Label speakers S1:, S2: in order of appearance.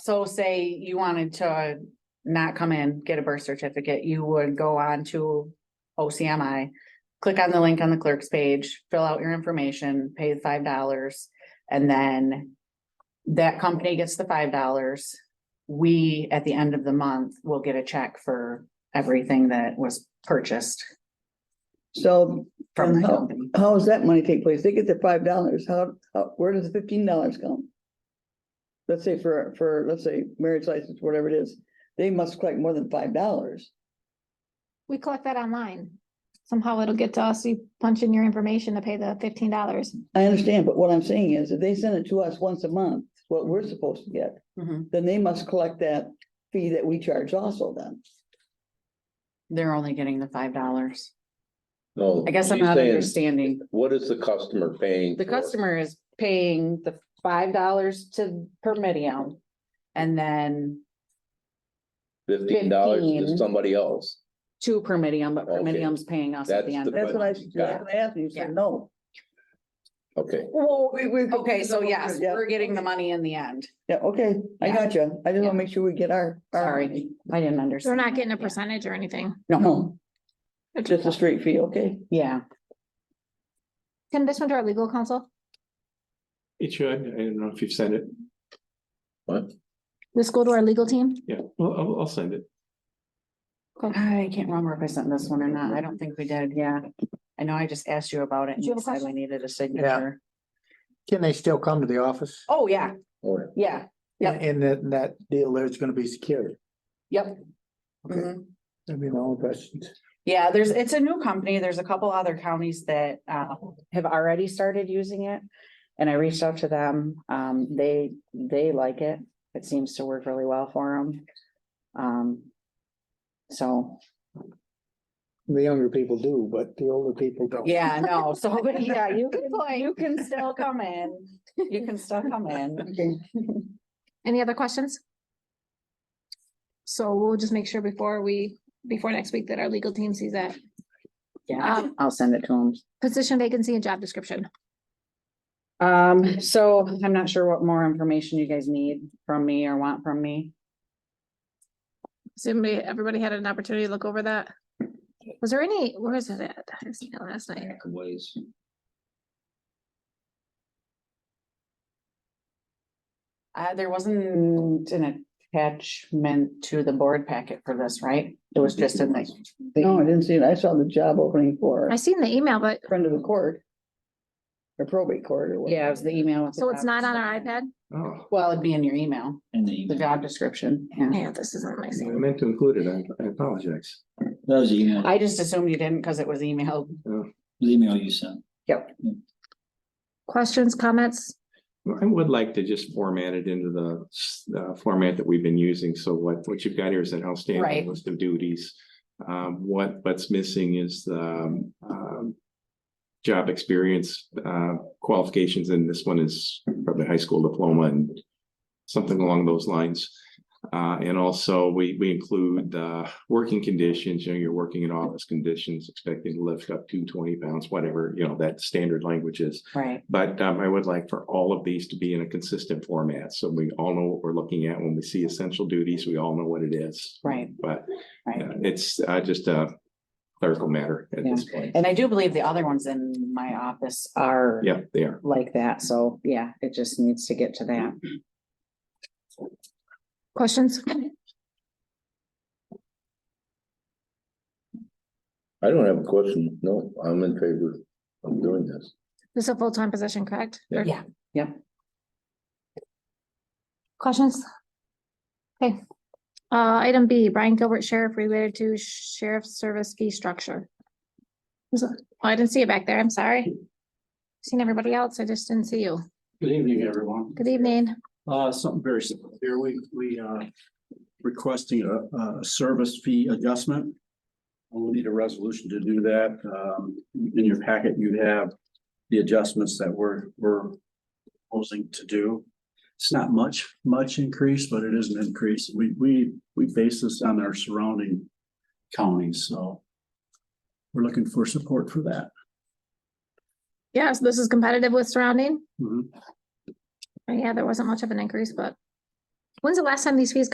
S1: So say you wanted to not come in, get a birth certificate, you would go on to OCMI. Click on the link on the clerk's page, fill out your information, pay the five dollars, and then. That company gets the five dollars. We, at the end of the month, will get a check for everything that was purchased
S2: So
S1: from the
S2: And how-
S1: company.
S2: how does that money take place? They get the five dollars. How, how, where does the fifteen dollars come? Let's say for, for, let's say marriage license, whatever it is, they must collect more than five dollars.
S3: We collect that online. Somehow it'll get to us. You punch in your information to pay the fifteen dollars.
S2: I understand, but what I'm saying is if they send it to us once a month, what we're supposed to get,
S1: Mhm.
S2: then they must collect that fee that we charge also then.
S1: They're only getting the five dollars.
S4: No.
S1: I guess I'm
S4: he's
S1: not
S4: saying,
S1: understanding.
S4: What is the customer paying?
S1: The
S4: for?
S1: customer is paying the five dollars to per medium. And then
S4: Fifteen dollars to
S1: 15.
S4: somebody else.
S1: two per medium, but per
S4: Okay.
S1: medium's paying us at the
S4: That's
S1: end.
S4: the-
S2: That's what I,
S4: Got it.
S2: that's what I asked you. You said, no.
S4: Okay,
S1: Well,
S2: We- we-
S1: okay, so yes,
S2: Yeah.
S1: we're getting the money in the end.
S2: Yeah, okay, I
S1: Yeah.
S2: got you. I just
S1: Yeah.
S2: wanna make sure we get our. our
S1: Sorry,
S2: money.
S1: I didn't
S3: They're
S1: understand.
S3: not getting a
S1: Yeah.
S3: percentage or anything.
S1: No,
S2: No, just a straight fee, okay?
S1: yeah,
S3: Send this one to our legal counsel.
S5: It should, I don't know if you've sent it,
S4: what?
S3: This go to our legal team.
S5: yeah, well, I'll, I'll send it.
S1: I can't remember if I sent this one or not. I don't think we did, yeah. I know I just asked you about it and
S3: Did you have
S1: you
S3: a
S1: said we
S3: question?
S1: needed a signature.
S6: Can they still come to the office?
S1: Oh, yeah,
S4: Or-
S1: yeah, Yep.
S6: And that, that deal there is gonna be secured.
S1: yep.
S6: Okay.
S1: Mhm.
S6: That'd be my only question.
S1: Yeah, there's, it's a new company. There's a couple other counties that uh have already started using it. And I reached out to them. Um, they, they like it. It seems to work really well for them. Um. So,
S6: The younger people do, but the older people don't.
S1: yeah, no, so, but yeah, you can, you can still come in. You can still come in.
S2: Okay.
S3: Any other questions? So we'll just make sure before we, before next week that our legal team sees that.
S1: Yeah, I'll send it to them.
S3: Position vacancy and job description.
S1: Um, so I'm not sure what more information you guys need from me or want from me.
S3: Somebody, everybody had an opportunity to look over that. Was there any, where is it at? I seen it last night.
S4: Ways.
S1: Uh, there wasn't an attachment to the board packet for this, right? It was just in the.
S2: No, I didn't see it. I saw the job opening for
S3: I seen the email, but
S2: friend of the court. Or probate court or what?
S1: Yeah, it was the email. with the
S3: so it's
S1: job
S3: not on our
S1: description.
S3: iPad?
S5: Oh,
S1: Well, it'd be in your email,
S7: And
S1: the
S7: the,
S1: job description, yeah.
S3: Yeah, this isn't my
S5: I
S3: scene.
S5: meant to include it, I, I apologize.
S7: that was the email,
S1: I just assumed you didn't because it was emailed.
S7: the email you sent.
S3: Questions, comments?
S5: I would like to just format it into the, s- uh, format that we've been using, so what, what you've got here is an
S1: Right.
S5: outstanding list of duties. Um, what, what's missing is the, um, um, job experience, uh, qualifications, and this one is probably high school diploma and something along those lines. Uh, and also, we, we include, uh, working conditions, you know, you're working in office conditions, expected to lift up to twenty pounds, whatever, you know, that standard language is.
S1: Right.
S5: But um, I would like for all of these to be in a consistent format, so we all know what we're looking at when we see essential duties, we all know what it is.
S1: Right,
S5: But
S1: right.
S5: uh, it's uh, just a clerical matter at this point.
S1: And I do believe the other ones in my office are
S5: Yeah, they are.
S1: like that, so yeah, it just needs to get to that.
S3: Questions?
S4: I don't have a question, no, I'm in favor of doing this.
S3: This is a full-time position, correct? Or-
S1: Yeah. Yep.
S3: Questions? Okay. Uh, item B, Brian Gilbert Sheriff related to sheriff's service fee structure. Is it- Oh, I didn't see it back there. I'm sorry. Seen everybody else. I just didn't see you.
S8: Good evening, everyone.
S3: Good evening.
S8: Uh, something very simple here. We, we are requesting a, a service fee adjustment. We'll need a resolution to do that. Um, in your packet, you have the adjustments that we're, we're proposing to do. It's not much, much increase, but it is an increase. We, we, we base this on our surrounding counties, so we're looking for support for that.
S3: Yes, this
S1: Mm-hmm.
S3: is competitive with surrounding. Uh,
S8: Mhm.
S3: Yeah, there wasn't much of an increase, but When's the last time these fees got